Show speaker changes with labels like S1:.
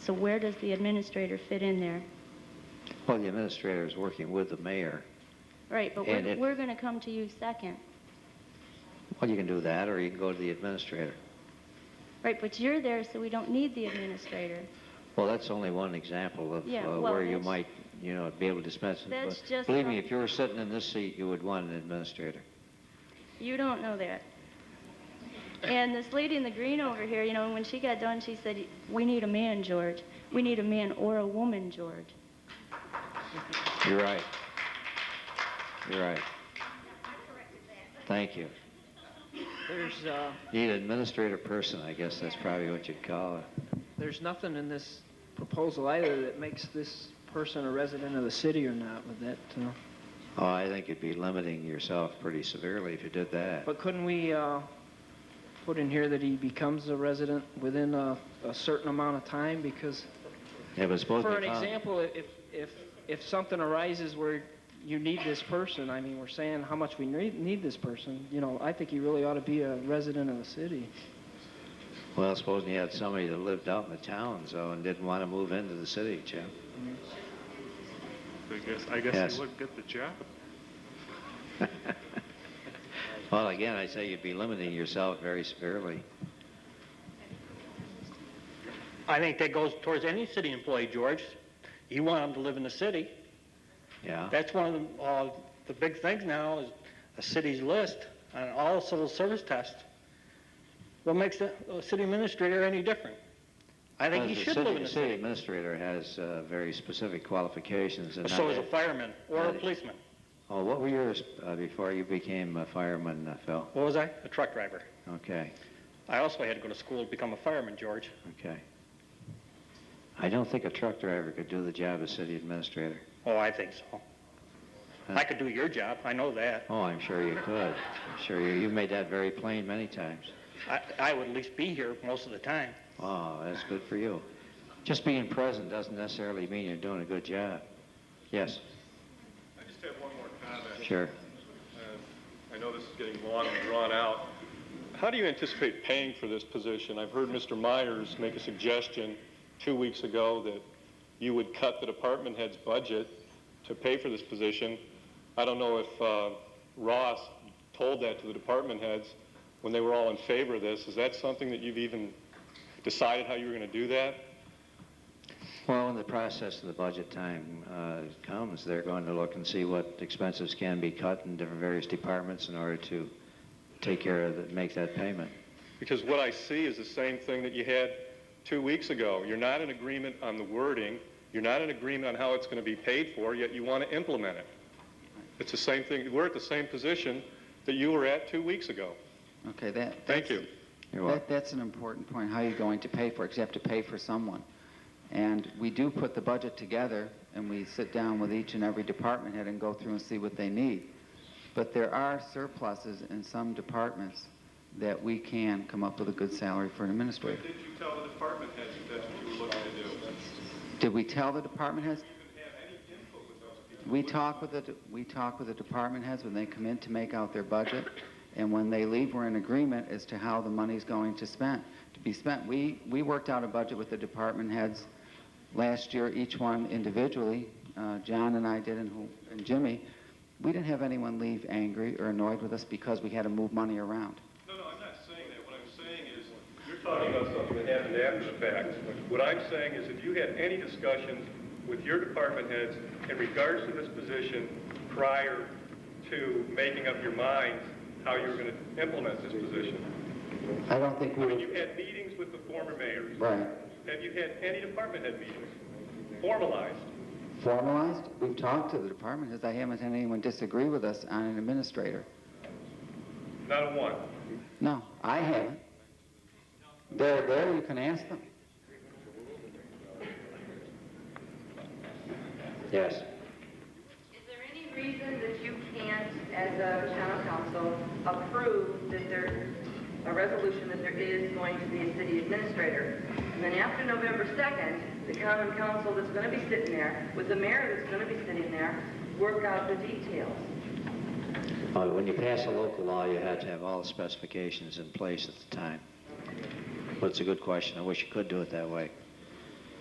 S1: So where does the administrator fit in there?
S2: Well, the administrator is working with the mayor.
S1: Right, but
S2: And
S1: we're,
S2: it-
S1: we're going to come to you second.
S2: Well, you can do that, or you can go to the administrator.
S1: Right, but you're there, so we don't need the administrator.
S2: Well, that's only one example of
S1: Yeah,
S2: uh,
S1: well,
S2: where you
S1: that's-
S2: might, you know, be able to dispense it.
S1: That's
S2: But
S1: just
S2: Believe
S1: from-
S2: me, if you were sitting in this seat, you would want an administrator.
S1: You don't know that. And this lady in the green over here, you know, when she got done, she said, "We need a man, George. We need a man or a woman, George."
S2: You're right. You're right. Thank you.
S3: There's, uh,
S2: Need an administrator person, I guess that's probably what you'd call it.
S3: there's nothing in this proposal either that makes this person a resident of the city or not with that, uh,
S2: Oh, I think you'd be limiting yourself pretty severely if you did that.
S3: but couldn't we, uh, put in here that he becomes a resident within a, a certain amount of time? Because
S2: It was supposed to
S3: For
S2: be
S3: an
S2: found-
S3: example, if, if, if something arises where you need this person, I mean, we're saying how much we need, need this person, you know, I think he really ought to be a resident of the city.
S2: Well, supposing you had somebody that lived out in the towns, though, and didn't want to move into the city, Jim.
S4: I guess, I guess
S2: Yes.
S4: he would get the job.
S2: Well, again, I say you'd be limiting yourself very severely.
S5: I think that goes towards any city employee, George. You want them to live in the city.
S2: Yeah.
S5: That's one of the, uh, the big things now is a city's list on all civil service tests. What makes the uh, city administrator any different? I think he
S2: Because
S5: should
S2: the
S5: live
S2: city,
S5: in the
S2: city
S5: city.
S2: administrator has uh, very specific qualifications. And
S5: So
S2: not-
S5: is a fireman or a
S2: not-
S5: policeman.
S2: Oh, what were yours uh, before you became a fireman, uh, Phil?
S5: What was I? A truck driver.
S2: Okay,
S5: I also had to go to school to become a fireman, George.
S2: okay. I don't think a truck driver could do the job of city administrator.
S5: Oh, I think so. I could do your job. I know that.
S2: Oh, I'm sure you could. I'm sure you, you've made that very plain many times.
S5: I, I would at least be here most of the time.
S2: Oh, that's good for you. Just being present doesn't necessarily mean you're doing a good job. Yes,
S6: I just have one more comment.
S2: sure.
S6: Uh, I know this is getting long and drawn out. How do you anticipate paying for this position? I've heard Mr. Myers make a suggestion two weeks ago that you would cut the department head's budget to pay for this position. I don't know if uh, Ross told that to the department heads when they were all in favor of this. Is that something that you've even decided how you were going to do that?
S2: Well, when the process of the budget time uh, comes, they're going to look and see what expenses can be cut in different various departments in order to take care of, that, make that payment.
S6: Because what I see is the same thing that you had two weeks ago. You're not in agreement on the wording, you're not in agreement on how it's going to be paid for, yet you want to implement it. It's the same thing, we're at the same position that you were at two weeks ago.
S7: Okay, that.
S6: Thank
S7: that's-
S6: you.
S2: You're
S7: That,
S2: welcome.
S7: that's an important point. How are you going to pay for it? 'Cause you have to pay for someone. And we do put the budget together and we sit down with each and every department head and go through and see what they need. But there are surpluses in some departments that we can come up with a good salary for an administrator.
S6: you tell the department heads that's what you were looking to do?
S7: Did we tell the department heads? We talk with the, de- we talk with the department heads when they come in to make out their budget, and when they leave, we're in agreement as to how the money's going to spend, to be spent. We, we worked out a budget with the department heads last year, each one individually, uh, John and I did and who- and Jimmy. We didn't have anyone leave angry or annoyed with us because we had to move money around.
S6: No, no, I'm not saying that. What I'm saying is, you're talking about something that happened after the fact. What I'm saying is, if you had any discussions with your department heads in regards to this position prior to making up your minds how you were going to implement this position.
S7: I don't think
S6: I
S7: we
S6: mean,
S7: were,
S6: you had meetings with the former mayors.
S7: right.
S6: Have you had any department head meetings, formalized?
S7: Formalized? We've talked to the department heads. I haven't had anyone disagree with us on an administrator.
S6: Not a one.
S7: No, I haven't. They're there, you can ask them.
S2: Yes.
S8: Is there any reason that you can't, as a town council, approve that there's a resolution that there is going to be a city administrator? And then after November 2nd, the common council that's going to be sitting there, with the mayor that's going to be sitting there, work out the details.
S2: Uh, When you pass a local law, you had to have all the specifications in place at the time. But it's a good question. I wish you could do it that way.